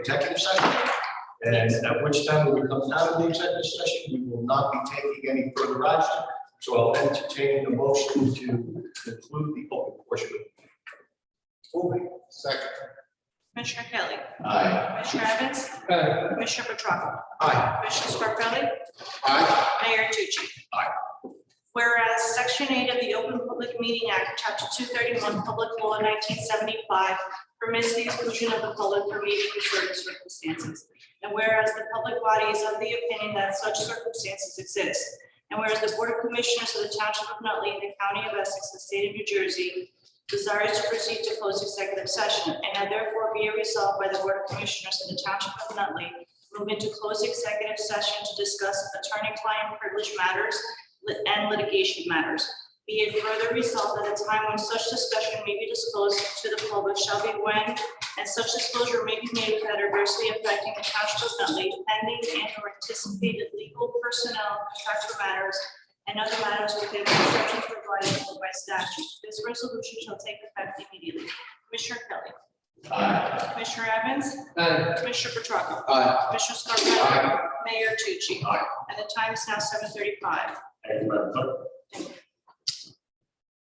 executive session. And at which time we come out of the executive session, we will not be taking any further action. So I'll entertain the motion to conclude the open portion. Moving. Second. Commissioner Kelly. Aye. Commissioner Evans. Aye. Commissioner Petracca. Aye. Commissioner Scarpelli. Aye. Mayor Tucci. Aye. Whereas Section 8 of the Open Public Meeting Act, Chapter 231, Public Law 1975 permits the exclusion of the public from meeting in certain circumstances. And whereas the public body is of the opinion that such circumstances exist. And whereas the Board of Commissioners of the Township of Nutley, the County of Essex, the State of New Jersey desires to proceed to close executive session. And now therefore be it resolved by the Board of Commissioners of the Township of Nutley move into closed executive session to discuss attorney-client privilege matters lit- and litigation matters. Be it further resolved that the time when such discussion may be disclosed to the public shall be when, and such disclosure may be made without adversely affecting the township of Nutley pending and or anticipated legal personnel contractual matters and other matters within the exceptions provided for by statute. This resolution shall take effect immediately. Commissioner Kelly. Aye. Commissioner Evans. Commissioner Petracca. Aye. Commissioner Scarpelli. Mayor Tucci. Aye. And the time is now seven thirty-five. Thank you, Madam Clerk. Thank you.